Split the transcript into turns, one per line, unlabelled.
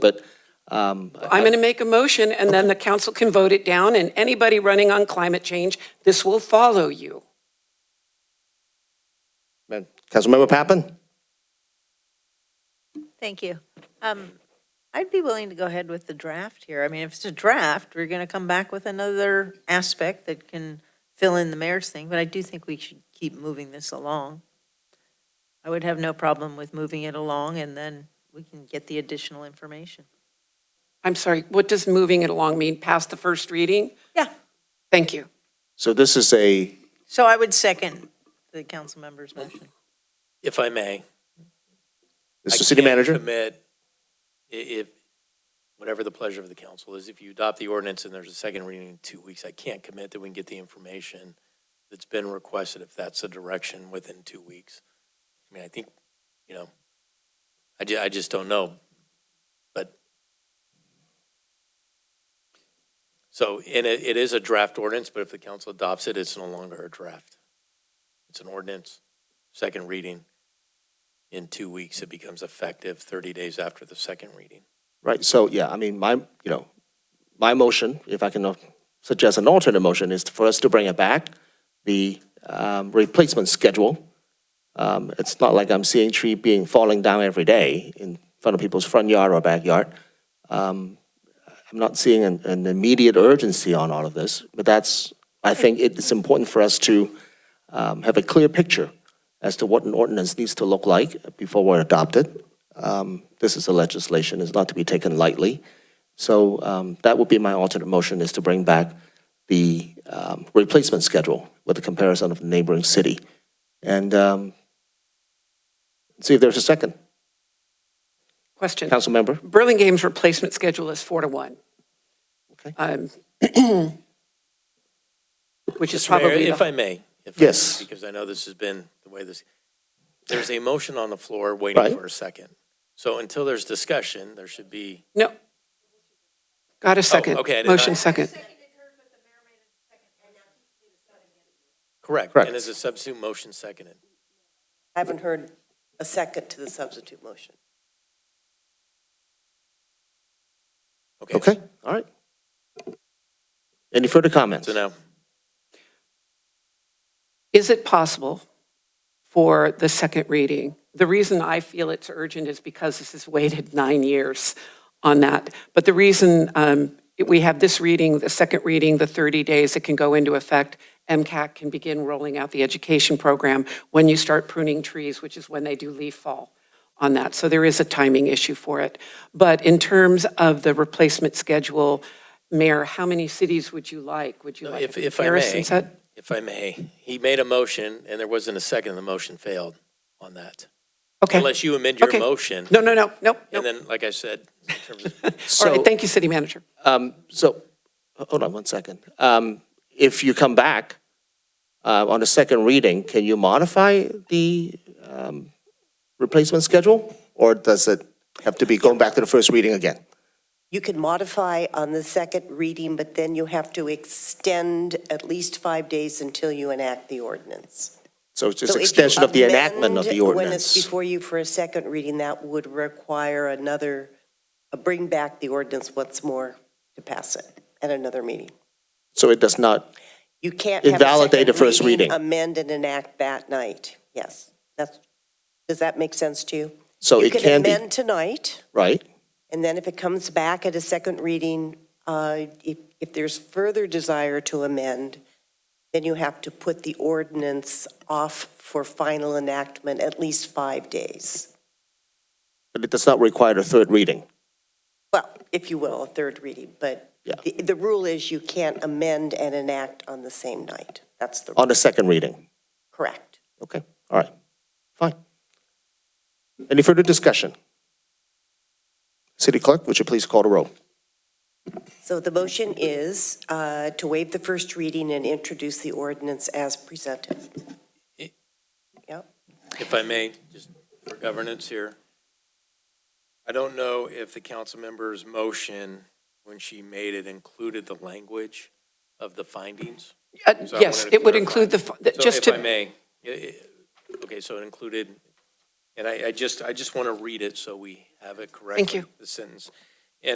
but um,
I'm going to make a motion, and then the council can vote it down, and anybody running on climate change, this will follow you.
Councilmember Pappen?
Thank you. Um, I'd be willing to go ahead with the draft here. I mean, if it's a draft, we're going to come back with another aspect that can fill in the mayor's thing, but I do think we should keep moving this along. I would have no problem with moving it along, and then we can get the additional information.
I'm sorry, what does moving it along mean? Past the first reading?
Yeah.
Thank you.
So this is a,
So I would second the council member's motion.
If I may.
this is
I
the city
can't
manager?
Commit, i- if, whatever the pleasure of the council is, if you adopt the ordinance and there's a second reading in two weeks, I can't commit that we can get the information that's been requested, if that's the direction, within two weeks. I mean, I think, you know, I ju- I just don't know, but. So, and it, it is a draft ordinance, but if the council adopts it, it's no longer a draft. It's an ordinance, second reading in two weeks, it becomes effective 30 days after the second reading.
Right, so, yeah, I mean, my, you know, my motion, if I can uh, suggest an alternate motion, is for us to bring it back, the um, replacement schedule. Um, It's not like I'm seeing tree being, falling down every day in front of people's front yard or backyard. Um, I'm not seeing an, an immediate urgency on all of this, but that's, I think it's important for us to um, have a clear picture as to what an ordinance needs to look like before we're adopted. Um, This is a legislation, it's not to be taken lightly. So um, that would be my alternate motion, is to bring back the um, replacement schedule with a comparison of the neighboring city. And um, see if there's a second.
Question.
Council member?
Burlingame's replacement schedule is four to one.
Okay.
Um, Which is
Mr. Mayor,
probably,
If
the-
I may. if I may,
Yes.
Because I know this has been the way this, there's a motion on the floor waiting
Right.
for a second. So until there's discussion, there should be,
no. Got a second.
Oh, okay, I did not-
Motion second.
correct.
Correct.
And is a substitute motion seconded?
I haven't heard a second to the substitute motion.
Okay, all right. Any further comments?
So now,
Is it possible for the second reading? The reason I feel it's urgent is because this has waited nine years on that. But the reason um, we have this reading, the second reading, the 30 days, it can go into effect. MCAC can begin rolling out the education program when you start pruning trees, which is when they do leaf fall on that. So there is a timing issue for it. But in terms of the replacement schedule, Mayor, how many cities would you like? Would you like
Uh, if,
a
if I
comparison
may,
set?
if I may, he made a motion and there wasn't a second, the motion failed on that.
Okay.
Unless you amend your
Okay.
motion.
No, no, no, no,
And
no.
then, like I said, in terms of,
All
So-
right, thank you, city manager.
Um, so, h- hold on one second. Um, if you come back, uh, on the second reading, can you modify the, um, replacement schedule? Or does it have to be going back to the first reading again?
You can modify on the second reading, but then you have to extend at least five days until you enact the ordinance.
So it's just
So if you
extension of the enactment of
amend
the
When it's
ordinance?
before you for a second reading, that would require another, uh, bring back the ordinance once more to pass it at another meeting.
So it does not,
You can't have a
Invalidate
second
the first reading.
Amend and enact that night, yes. That's, does that make sense to you?
so it can
You can
be,
amend tonight.
right?
And then if it comes back at a second reading, uh, if if there's further desire to amend, then you have to put the ordinance off for final enactment at least five days.
But it does not require a third reading.
Well, if you will, a third reading, but
Yeah.
the the rule is you can't amend and enact on the same night. That's the,
On the second reading,
correct.
okay, all right, fine. Any further discussion? City Clerk, would you please call the roll?
So the motion is uh, to waive the first reading and introduce the ordinance as presented.
if I may, just for governance here, I don't know if the council member's motion, when she made it, included the language of the findings.
Uh,
So I
Yes,
wanted to
it would
clarify.
include the, fu- the-
So
just
if I
to,
may, i- i- okay, so it included, and I, I just, I just want to read it so we have it correctly.
you.
The sentence.